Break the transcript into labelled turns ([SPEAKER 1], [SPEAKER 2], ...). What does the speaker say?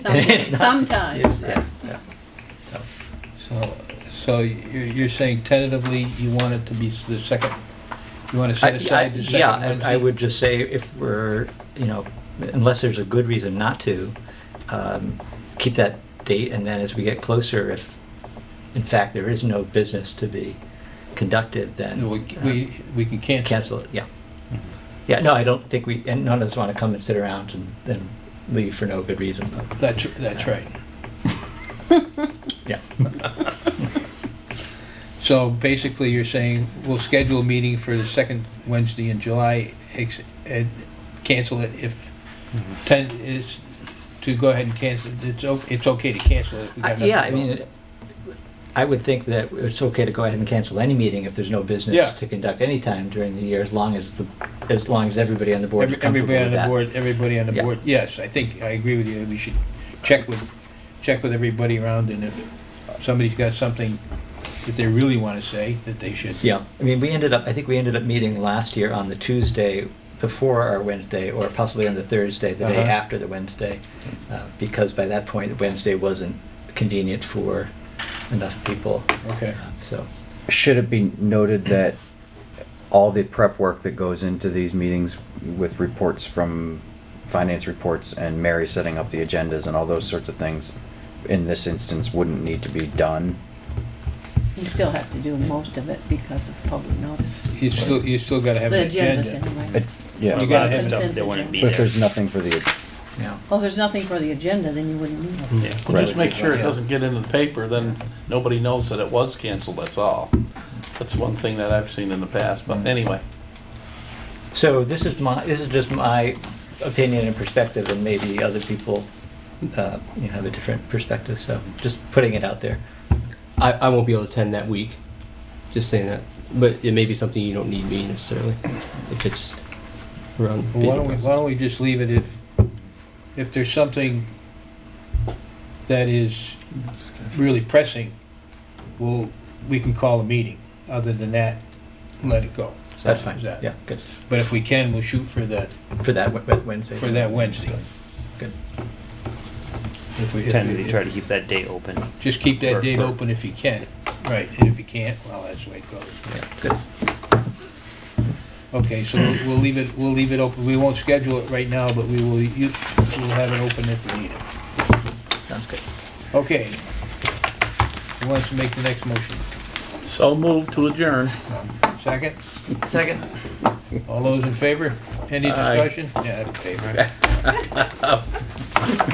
[SPEAKER 1] It's not-
[SPEAKER 2] Sometimes.
[SPEAKER 1] Yeah, yeah. So,
[SPEAKER 3] So, so you're, you're saying tentatively you want it to be the second, you want to
[SPEAKER 1] I-
[SPEAKER 3] set
[SPEAKER 1] I-
[SPEAKER 3] aside the
[SPEAKER 1] Yeah,
[SPEAKER 3] second
[SPEAKER 1] I- I
[SPEAKER 3] Wednesday?
[SPEAKER 1] would just say if we're, you know, unless there's a good reason not to, um, keep that date, and then as we get closer, if in fact there is no business to be conducted, then
[SPEAKER 3] We,
[SPEAKER 1] uh,
[SPEAKER 3] we, we can cancel.
[SPEAKER 1] cancel it, yeah. Yeah, no, I don't think we, and none of us want to come and sit around and then leave for no good reason, but,
[SPEAKER 3] That's, that's right.
[SPEAKER 1] yeah.
[SPEAKER 3] So basically you're saying we'll schedule a meeting for the second Wednesday in July, ex- and cancel it if ten is, to go ahead and cancel, it's, o- it's okay to cancel it if we
[SPEAKER 1] I-
[SPEAKER 3] got nothing.
[SPEAKER 1] Yeah, I
[SPEAKER 3] going.
[SPEAKER 1] mean, I would think that it's okay to go ahead and cancel any meeting if there's no
[SPEAKER 3] Yeah.
[SPEAKER 1] business to conduct any time during the year, as long as the, as long as everybody on the board is
[SPEAKER 3] Every-
[SPEAKER 1] comfortable
[SPEAKER 3] Everybody on
[SPEAKER 1] with
[SPEAKER 3] the
[SPEAKER 1] that.
[SPEAKER 3] board, everybody on the
[SPEAKER 1] Yeah.
[SPEAKER 3] board, yes, I think, I agree with you, we should check with, check with everybody around, and if somebody's got something that they really want to say, that they should.
[SPEAKER 1] Yeah, I mean, we ended up, I think we ended up meeting last year on the Tuesday before our Wednesday, or possibly on the Thursday, the day
[SPEAKER 3] Uh-huh.
[SPEAKER 1] after the Wednesday, uh, because by that point, Wednesday wasn't convenient for enough people, Uh,
[SPEAKER 3] Okay,
[SPEAKER 1] so.
[SPEAKER 4] Should it be noted that all the prep work that goes into these meetings with reports from finance reports and Mary setting up the agendas and all those sorts of things, in this instance, wouldn't need to be done?
[SPEAKER 2] You still have to do most of it because of public notice.
[SPEAKER 3] you still, you still gotta have
[SPEAKER 2] The
[SPEAKER 3] an
[SPEAKER 2] agendas
[SPEAKER 3] agenda.
[SPEAKER 2] anyway.
[SPEAKER 4] It- Yeah,
[SPEAKER 3] You
[SPEAKER 5] A
[SPEAKER 4] but
[SPEAKER 5] lot
[SPEAKER 3] gotta
[SPEAKER 5] of
[SPEAKER 3] have
[SPEAKER 5] this stuff,
[SPEAKER 2] consent
[SPEAKER 5] they wouldn't be
[SPEAKER 2] agenda.
[SPEAKER 4] if
[SPEAKER 5] there.
[SPEAKER 4] there's nothing for the,
[SPEAKER 1] Yeah.
[SPEAKER 2] Well, if there's nothing for the agenda, then you wouldn't need it.
[SPEAKER 3] Mm.
[SPEAKER 5] Yeah.
[SPEAKER 6] Well, Just
[SPEAKER 4] Right.
[SPEAKER 6] make sure it doesn't get into the paper, then nobody knows that it was canceled, that's all. That's one thing that I've seen in the past,
[SPEAKER 5] Mm.
[SPEAKER 6] but anyway.
[SPEAKER 1] So this is my, this is just my opinion and perspective, and maybe other people, uh, you know, have a different perspective, so just putting it out there.
[SPEAKER 5] I, I won't be able to attend that week. Just saying that. But it may be something you don't need me necessarily. If it's around
[SPEAKER 3] Well, Why
[SPEAKER 5] bidding
[SPEAKER 3] don't we,
[SPEAKER 5] process.
[SPEAKER 3] why don't we just leave it if, if there's something that is really pressing, well, we can call a meeting. Other than that, let it go.
[SPEAKER 1] That's fine,
[SPEAKER 3] Is that-
[SPEAKER 1] yeah, good,
[SPEAKER 3] But if we can, we'll shoot for the,
[SPEAKER 1] for that Wed- Wed- Wednesday.
[SPEAKER 3] for that Wednesday.
[SPEAKER 1] Good.
[SPEAKER 3] If we- if we-
[SPEAKER 5] Tentatively try to keep that date open.
[SPEAKER 3] Just keep
[SPEAKER 5] For-
[SPEAKER 3] that date
[SPEAKER 5] for-
[SPEAKER 3] open if you can, right, and if you can't, well, that's the way it goes.
[SPEAKER 1] Yeah, good.
[SPEAKER 3] Okay, so we'll- we'll leave it, we'll leave it open, we won't schedule it right now, but we will, u- we'll have it open if we need it.
[SPEAKER 1] Sounds good.
[SPEAKER 3] Okay. Who wants to make the next motion?
[SPEAKER 6] So moved to adjourn.
[SPEAKER 3] Second?
[SPEAKER 1] Second.
[SPEAKER 3] All those in favor? Any
[SPEAKER 6] Aye.
[SPEAKER 3] discussion? Yeah, in favor.